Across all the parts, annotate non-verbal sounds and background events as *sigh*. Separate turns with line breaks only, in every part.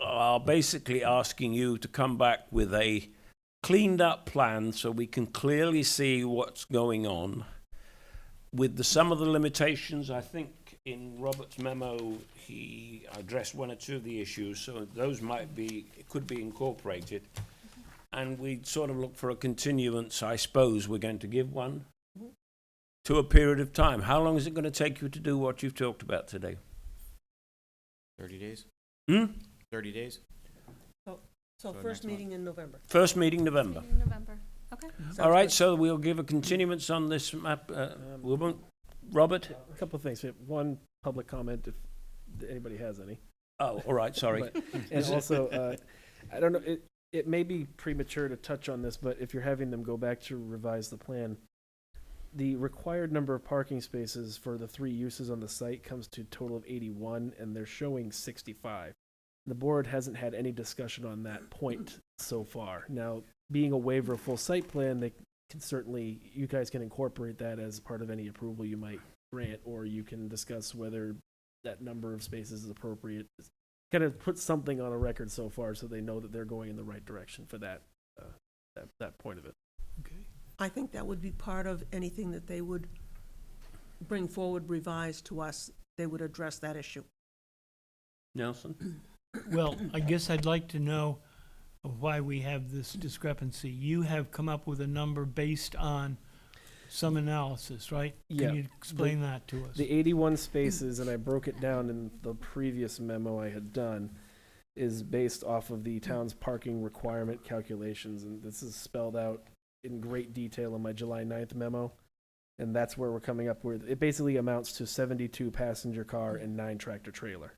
are basically asking you to come back with a cleaned up plan so we can clearly see what's going on with the some of the limitations. I think in Robert's memo he addressed one or two of the issues, so those might be could be incorporated. And we sort of look for a continuance. I suppose we're going to give one to a period of time. How long is it going to take you to do what you've talked about today?
30 days?
Hmm?
30 days?
So
So next
first
month.
meeting in November.
First meeting November.
In November. Okay.
Mm-hmm.
All right, so we'll give a continuance on this map. Uh, we won't. Robert?
A couple of things. We have One public comment, if anybody has any.
Oh, all right, sorry.
But- *laughs* And also, uh, I don't know, it, it may be premature to touch on this, but if you're having them go back to revise the plan, the required number of parking spaces for the three uses on the site comes to a total of 81, and they're showing 65. The board hasn't had any discussion on that point so far. Now, being a waiver of full site plan, they can certainly, you guys can incorporate that as part of any approval you might grant, or you can discuss whether that number of spaces is appropriate, kind of put something on a record so far so they know that they're going in the right direction for that uh, that, that point of it.
I think that would be part of anything that they would bring forward revised to us. They would address that issue.
Nelson?
*clears throat* Well, I guess I'd like to know why we have this discrepancy. You have come up with a number based on some analysis, right?
Yeah.
Can you explain that to us?
The 81 spaces, and I broke it down in the previous memo I had done, is based off of the town's parking requirement calculations, and this is spelled out in great detail in my July 9th memo. And that's where we're coming up with, it basically amounts to 72 passenger car and nine tractor trailer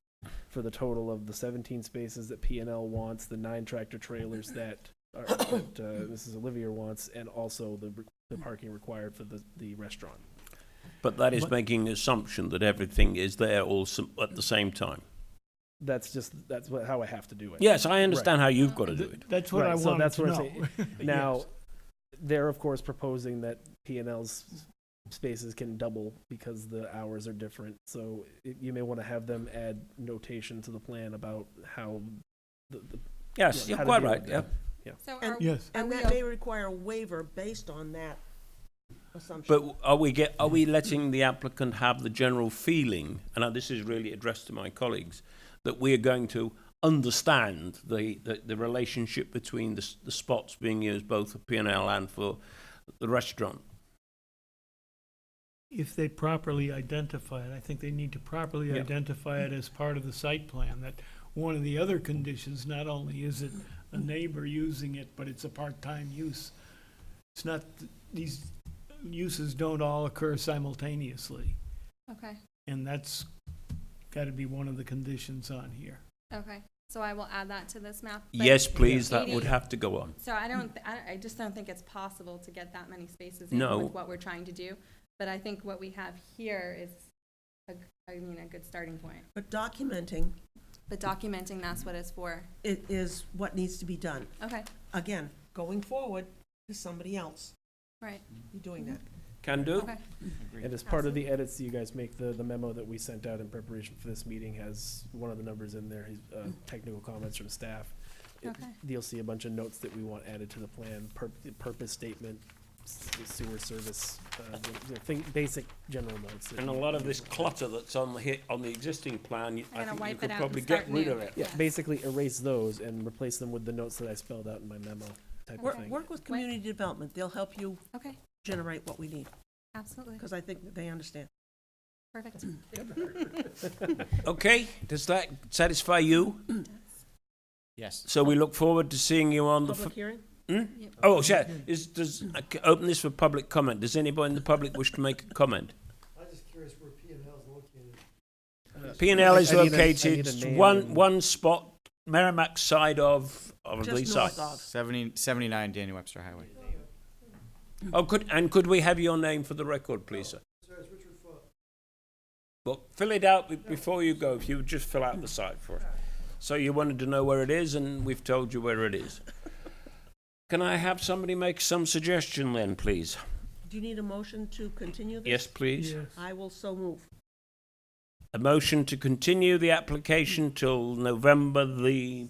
for the total of the 17 spaces that P and L wants, the nine tractor trailers that, are- that uh, Mrs. Olivier wants, and also the, the parking required for the, the restaurant.
But that is
But-
making the assumption that everything is there all s- at the same time.
That's just, that's what, how I have to do it.
Yes, I understand how you've got to do
Th-
it.
That's what I
Right, so
wanted
that's
to
what I'm
know. *laughs*
Now,
Yes.
they're of course proposing that P and L's spaces can double because the hours are different. So it, you may want to have them add notation to the plan about how the, the
Yes,
yeah,
you're
how to
quite
deal
right,
with
yeah.
that.
So
And-
are,
Yes.
are
And
we,
that may
o-
require a waiver based on that assumption.
But are we get, are we letting the applicant have the general feeling, and now this is really addressed to my colleagues, that we are going to understand the, the, the relationship between the, s- the spots being used both for P&L and for the restaurant?
If they properly identify it, I think they need to properly
Yeah.
identify it as part of the site plan. That one of the other conditions, not only is it a neighbor using it, but it's a part-time use. It's not, these uses don't all occur simultaneously.
okay,
And that's got to be one of the conditions on here.
okay. So I will add that to this map. but-
Yes, please, that would
Eighty-
have to go on.
So I don't, th- I I just don't think it's possible to get that many spaces in
No.
with what we're trying to do. But I think what we have here is, a g- I mean, a good starting point.
But documenting
But documenting, that's what it's for.
it is what needs to be done.
Okay,
Again, going forward is somebody else
right,
You're doing that.
Mm-hmm.
Can do.
okay.
And as part of the edits that you guys make, the, the memo that we sent out in preparation for this meeting has one of the numbers in there, his, uh, technical comments from staff. It-
Okay.
You'll see a bunch of notes that we want added to the plan, pur- purpose statement, s- sewer service, uh, the, the thing, basic general notes. that
And a
you-
lot of this clutter that's on the, hi- on the existing plan, you- I
gotta
think you
wipe
could
it out
probably
and
get
start
rid
new.
of it.
Yeah,
Yes.
basically erase those and replace them with the notes that I spelled out in my memo type of
Work,
thing.
work with community development. They'll help you
Okay,
generate what we need,
absolutely,
because I think that they understand.
perfect.
Okay, does that satisfy you?
Yes.
So we look forward to seeing you on the.
Public
f-
hearing?
Hmm? Oh, yeah, is, does, I c- open this for public comment. Does anybody in the public wish to make a comment?
I'm just curious where P and L is located.
P and L
I-
is
I need a- I need
located
a name
one,
and-
one spot, Merrimack side of, of the
Just
site.
north of.
70, 79 Daniel Webster Highway.
Oh, could, and could we have your name for the record, please, sir?
Sorry, it's Richard Foot.
Well, fill it out be- before you go, if you would just fill out the site for us. So you wanted to know where it is, and we've told you where it is. Can I have somebody make some suggestion then, please?
Do you need a motion to continue this?
Yes, please.
Yes.
I will so move.
A motion to continue the application till November the